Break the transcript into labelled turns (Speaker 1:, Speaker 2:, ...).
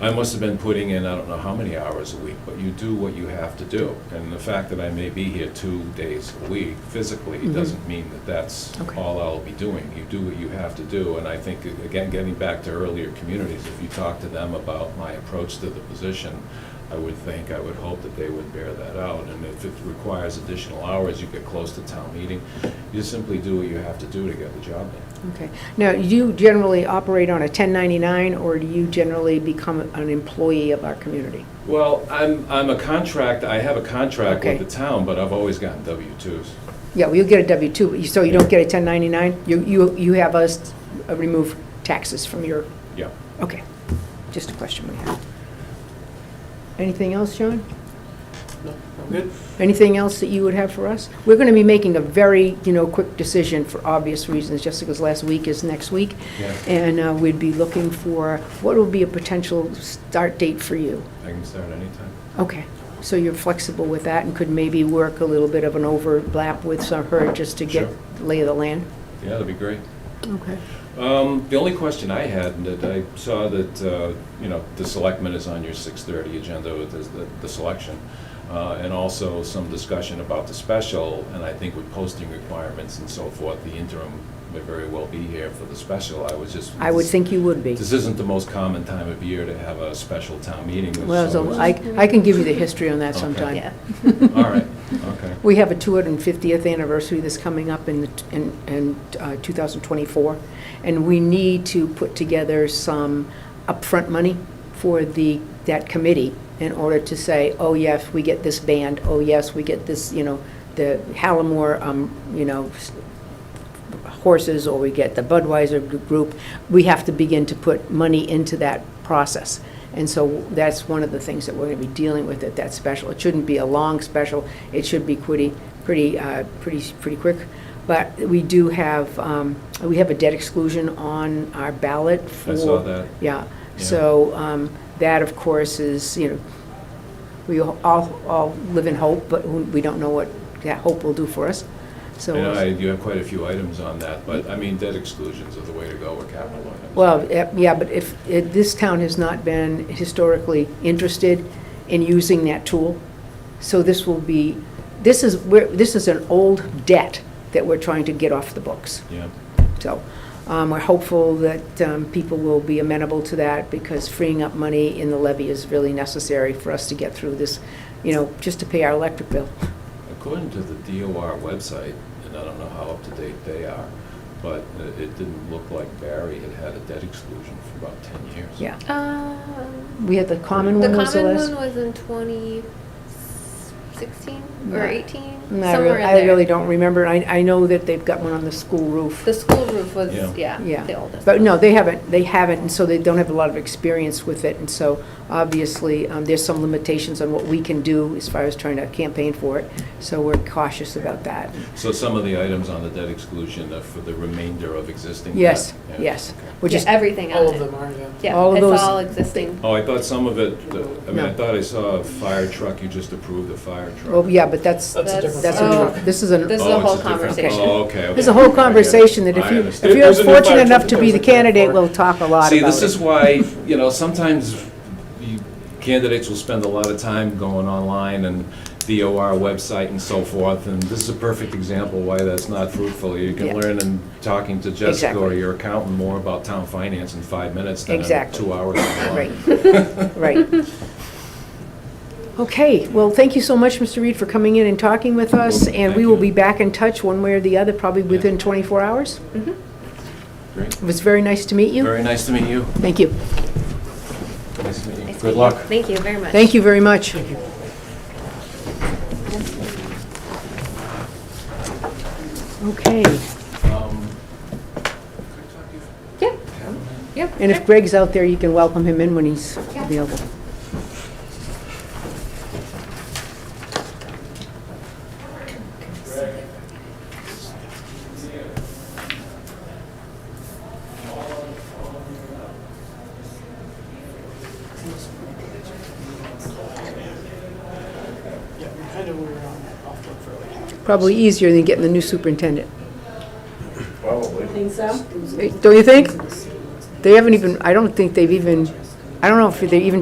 Speaker 1: I must have been putting in, I don't know how many hours a week, but you do what you have to do. And the fact that I may be here two days a week physically
Speaker 2: Mhm.
Speaker 1: doesn't mean that that's
Speaker 2: Okay.
Speaker 1: all I'll be doing. You do what you have to do, and I think, again, getting back to earlier communities, if you talk to them about my approach to the position, I would think, I would hope that they would bear that out. And if it requires additional hours, you get close to town meeting, you simply do what you have to do to get the job done.
Speaker 2: Okay. Now, you generally operate on a 1099, or do you generally become an employee of our community?
Speaker 1: Well, I'm, I'm a contract, I have a contract with
Speaker 2: Okay.
Speaker 1: the town, but I've always gotten W-2s.
Speaker 2: Yeah, well, you get a W-2, but you- so you don't get a 1099? You, you, you have us uh, remove taxes from your,
Speaker 1: Yeah.
Speaker 2: okay. Just a question we have. Anything else, Sean?
Speaker 3: Good.
Speaker 2: Anything else that you would have for us? We're going to be making a very, you know, quick decision for obvious reasons. Jessica's last week is next week.
Speaker 1: Yeah.
Speaker 2: And uh, we'd be looking for, what would be a potential start date for you?
Speaker 1: I can start anytime.
Speaker 2: Okay, so you're flexible with that and could maybe work a little bit of an overlap with some- her just to get
Speaker 1: Sure.
Speaker 2: the lay of the land?
Speaker 1: Yeah, that'd be great.
Speaker 2: Okay.
Speaker 1: Um, The only question I had, and that I saw that, uh, you know, the selectmen is on your 6:30 agenda with this- the, the selection, uh, and also some discussion about the special, and I think with posting requirements and so forth, the interim may very well be here for the special. I was just.
Speaker 2: I would think you would be.
Speaker 1: This isn't the most common time of year to have a special town meeting.
Speaker 2: Well,
Speaker 1: so
Speaker 2: so
Speaker 1: it's-
Speaker 2: I, I can give you the history on that
Speaker 1: Okay.
Speaker 2: sometime.
Speaker 4: Yeah.
Speaker 1: All right, okay.
Speaker 2: We have a 250th anniversary that's coming up in, the t- in, in uh, 2024, and we need to put together some upfront money for the, that committee in order to say, oh, yes, we get this band, oh, yes, we get this, you know, the Hallamore, um, you know, s- horses, or we get the Budweiser gr- group, we have to begin to put money into that process. And so that's one of the things that we're going to be dealing with at that special. It shouldn't be a long special, it should be pretty, pretty, uh, pretty, pretty quick. But we do have, um, we have a debt exclusion on our ballot for.
Speaker 1: I saw that.
Speaker 2: Yeah,
Speaker 1: Yeah.
Speaker 2: so um, that, of course, is, you know, we all, all live in hope, but we don't know what that hope will do for us, so.
Speaker 1: And I, you have quite a few items on that, but I mean, debt exclusions are the way to go with capital items.
Speaker 2: Well, eh, yeah, but if, if this town has not been historically interested in using that tool, so this will be, this is, we're- this is an old debt that we're trying to get off the books.
Speaker 1: Yeah,
Speaker 2: So um, we're hopeful that um, people will be amenable to that because freeing up money in the levy is really necessary for us to get through this, you know, just to pay our electric bill.
Speaker 1: according to the DOR website, and I don't know how up to date they are, but it it didn't look like Barry had had a debt exclusion for about ten years.
Speaker 2: Yeah.
Speaker 4: Um,
Speaker 2: We had the common
Speaker 4: the
Speaker 2: one
Speaker 4: common
Speaker 2: was the last.
Speaker 4: one was in 2016
Speaker 2: Yeah.
Speaker 4: or 18,
Speaker 2: And I
Speaker 4: somewhere
Speaker 2: really-
Speaker 4: in
Speaker 2: I
Speaker 4: there.
Speaker 2: really don't remember. I, I know that they've got one on the school roof.
Speaker 4: The school roof was
Speaker 1: Yeah.
Speaker 4: yeah,
Speaker 2: Yeah.
Speaker 4: the oldest.
Speaker 2: But
Speaker 4: one.
Speaker 2: no, they haven't, they haven't, and so they don't have a lot of experience with it. And so obviously, um, there's some limitations on what we can do as far as trying to campaign for it. So we're cautious about that.
Speaker 1: So some of the items on the debt exclusion are for the remainder of existing debt?
Speaker 2: Yes,
Speaker 1: Yeah.
Speaker 2: yes,
Speaker 1: Okay.
Speaker 2: which
Speaker 4: Yeah,
Speaker 2: is,
Speaker 4: everything
Speaker 3: All
Speaker 4: on
Speaker 3: of
Speaker 4: it.
Speaker 3: them are, yeah.
Speaker 4: Yeah,
Speaker 2: All of
Speaker 4: it's
Speaker 2: those-
Speaker 4: all existing.
Speaker 1: Oh, I thought some of it, I mean, I
Speaker 2: No.
Speaker 1: thought I saw a fire truck, you just approved a fire truck.
Speaker 2: oh, yeah, but that's,
Speaker 3: That's a different.
Speaker 2: that's a
Speaker 4: Oh.
Speaker 2: truck. This is an,
Speaker 4: This is
Speaker 1: Oh,
Speaker 4: a
Speaker 1: it's
Speaker 4: whole
Speaker 1: different-
Speaker 4: conversation.
Speaker 1: Oh, okay, okay.
Speaker 2: there's a whole
Speaker 1: I get it.
Speaker 2: conversation that if
Speaker 1: I
Speaker 2: you,
Speaker 1: understand.
Speaker 2: if you're
Speaker 3: There's a new
Speaker 2: fortunate
Speaker 3: fire
Speaker 2: enough
Speaker 3: truck
Speaker 2: to be the
Speaker 3: that goes in there
Speaker 2: candidate,
Speaker 3: for-
Speaker 2: we'll talk a lot about
Speaker 1: See,
Speaker 2: it.
Speaker 1: this is why, you know, sometimes you- candidates will spend a lot of time going online and the OR website and so forth, and this is a perfect example why that's not fruitful. You
Speaker 2: Yeah.
Speaker 1: can learn in talking to Jessica or
Speaker 2: Exactly.
Speaker 1: your accountant more about town finance in five minutes than in
Speaker 2: Exactly.
Speaker 1: two hours. online.
Speaker 2: Right, right. Okay, well, thank you so much, Mr. Reed, for coming in and talking with us, and we will be back in touch one way or the other, probably within 24 hours.
Speaker 4: Mm-hmm.
Speaker 1: Great.
Speaker 2: It was very nice to meet you.
Speaker 1: Very nice to meet you.
Speaker 2: Thank you.
Speaker 1: Nice to meet you.
Speaker 4: Nice
Speaker 1: Good
Speaker 4: meeting
Speaker 1: luck.
Speaker 4: you. Thank you very much.
Speaker 2: Thank you very much. Okay,
Speaker 1: Um,
Speaker 4: Yeah. Yep.
Speaker 2: and if Greg's out there, you can welcome him in when he's
Speaker 4: Yeah.
Speaker 2: available.
Speaker 3: Yeah, we kind of, we were on, off work for like half.
Speaker 2: Probably easier than getting the new superintendent.
Speaker 5: Think so?
Speaker 2: Don't you think? They haven't even, I don't think they've even I don't know if they're even